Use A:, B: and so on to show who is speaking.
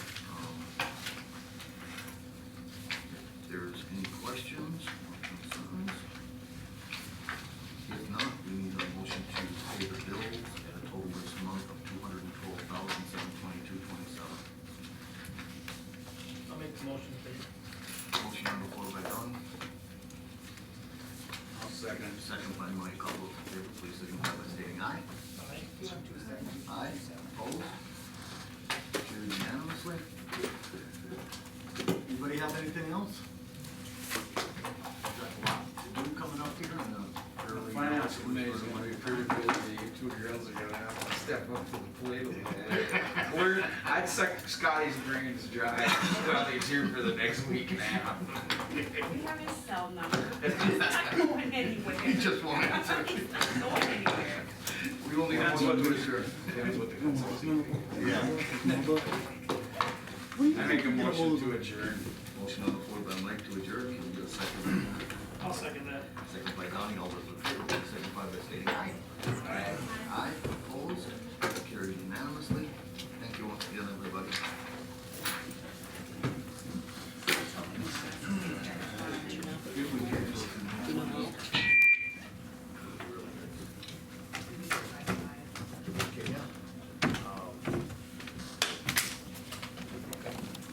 A: second by Mike, all those in favor, please signify by stating aye. Aye, opposed, carried unanimously. Anybody have anything else? Got a lot to do coming up here in a
B: The
A: fairly-
B: Finance committee is gonna be pretty busy, you two girls are gonna have to step up to the plate a little bit. We're, I'd suck Scotty's brains dry, while he's here for the next week and a half.
C: We have his cell number. He's not going anywhere.
A: He just won't
C: He's
A: answer.
C: not going anywhere.
A: We only have
B: That's
A: one
B: what
A: to
B: we-
A: adjourn.
B: That's what the consulting thinks.
A: Yeah.
B: I make a motion to adjourn.
A: Motion on the floor by Mike to adjourn, can we get a second?
D: I'll second that.
A: Second by Donnie, all those in favor, please signify by stating aye. Aye. Aye, opposed, carried unanimously. Thank you once again, everybody.